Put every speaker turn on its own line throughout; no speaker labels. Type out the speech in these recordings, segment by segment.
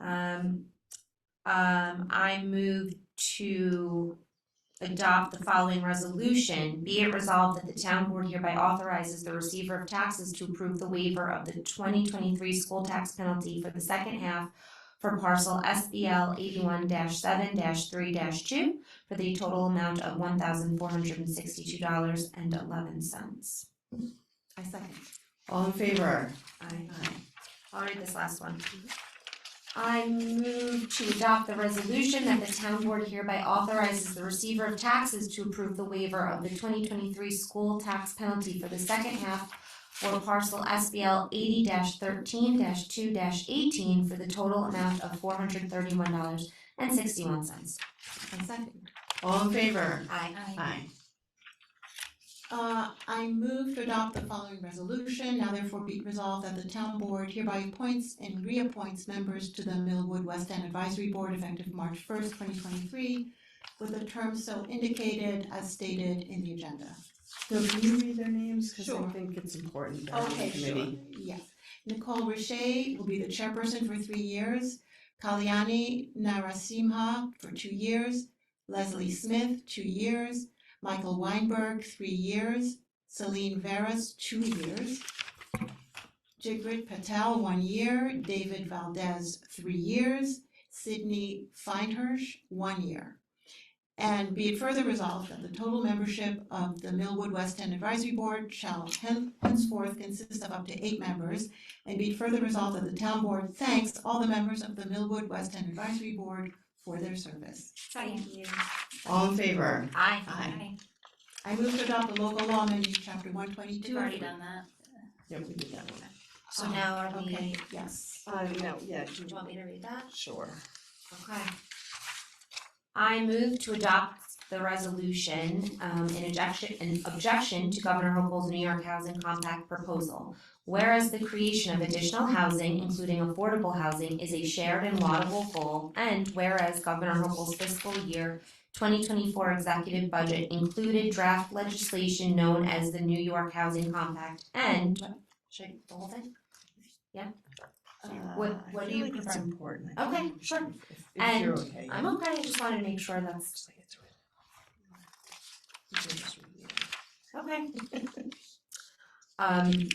Um, um, I move to adopt the following resolution. Be it resolved that the town board hereby authorizes the receiver of taxes to approve the waiver of the twenty twenty-three school tax penalty for the second half for parcel SBL eighty-one seven three two for the total amount of one thousand four hundred and sixty-two dollars and eleven cents. I second.
All in favor?
Aye. I'll read this last one. I move to adopt the resolution that the town board hereby authorizes the receiver of taxes to approve the waiver of the twenty twenty-three school tax penalty for the second half for parcel SBL eighty thirteen two eighteen for the total amount of four hundred thirty-one dollars and sixty-one cents. I second.
All in favor?
Aye.
Aye.
Uh, I move to adopt the following resolution, now therefore be it resolved that the town board hereby appoints and reappoints members to the Millwood West End Advisory Board effective March first, twenty twenty-three, with a term so indicated as stated in the agenda.
So can you read their names? Cause I
Sure.
think it's important that the committee.
Yes. Nicole Richey will be the chairperson for three years, Kalyani Narasimha for two years, Leslie Smith, two years, Michael Weinberg, three years, Celine Veras, two years, Jigrit Patel, one year, David Valdez, three years, Sydney Feinhersh, one year. And be it further resolved that the total membership of the Millwood West End Advisory Board shall hen- henceforth consist of up to eight members. And be it further resolved that the town board thanks all the members of the Millwood West End Advisory Board for their service.
Thank you.
All in favor?
Aye.
Aye. I move to adopt the local law amending chapter one twenty-two.
We've already done that.
Yeah, we did that one.
So now are we,
Okay,
do
yes.
Uh, no, yeah, you-
you want me to read that?
sure.
Okay. I move to adopt the resolution um in objection in objection to Governor Hochul's New York Housing Compact proposal. Whereas the creation of additional housing, including affordable housing, is a shared and laudable goal, and whereas Governor Hochul's fiscal year twenty twenty-four executive budget included draft legislation known as the New York Housing Compact, and should I do the whole thing? What-
Uh, I
what do
feel
you
like it's
prefer?
important. I
Okay,
think
sure.
if- If you're
And
okay.
I'm okay, I just wanted to make sure that's
Just like it's really- You can just read it.
Okay. Um.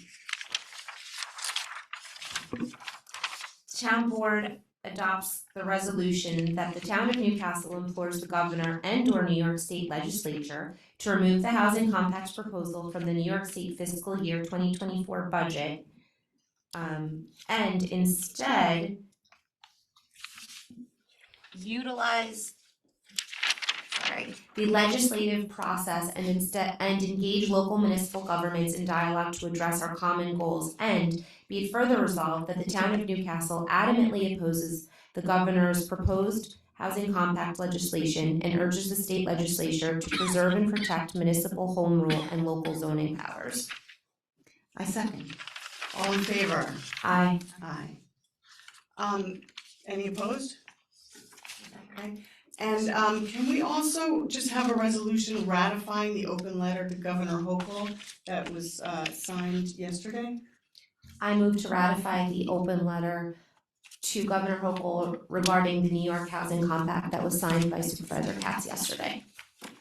Town board adopts the resolution that the town of Newcastle implores the governor and or New York State legislature to remove the housing compact proposal from the New York State fiscal year twenty twenty-four budget. Um, and instead utilize sorry, the legislative process and instead and engage local municipal governments in dialogue to address our common goals and be it further resolved that the town of Newcastle adamantly opposes the governor's proposed housing compact legislation and urges the state legislature to preserve and protect municipal home rule and local zoning powers.
I second.
All in favor?
I
Aye. Um, any opposed? Okay, and um, can we also just have a resolution ratifying the open letter to Governor Hochul that was uh signed yesterday?
I move to ratify the open letter to Governor Hochul regarding the New York Housing Compact that was signed by Supervisor Katz yesterday.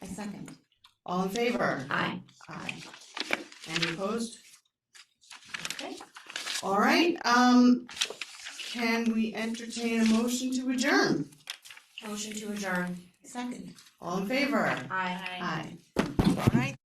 I second.
All in favor?
Aye.
Aye. Any opposed?
Okay.
All right, um, can we entertain a motion to adjourn?
Motion to adjourn.
Second.
All in favor?
Aye.
Aye. All right,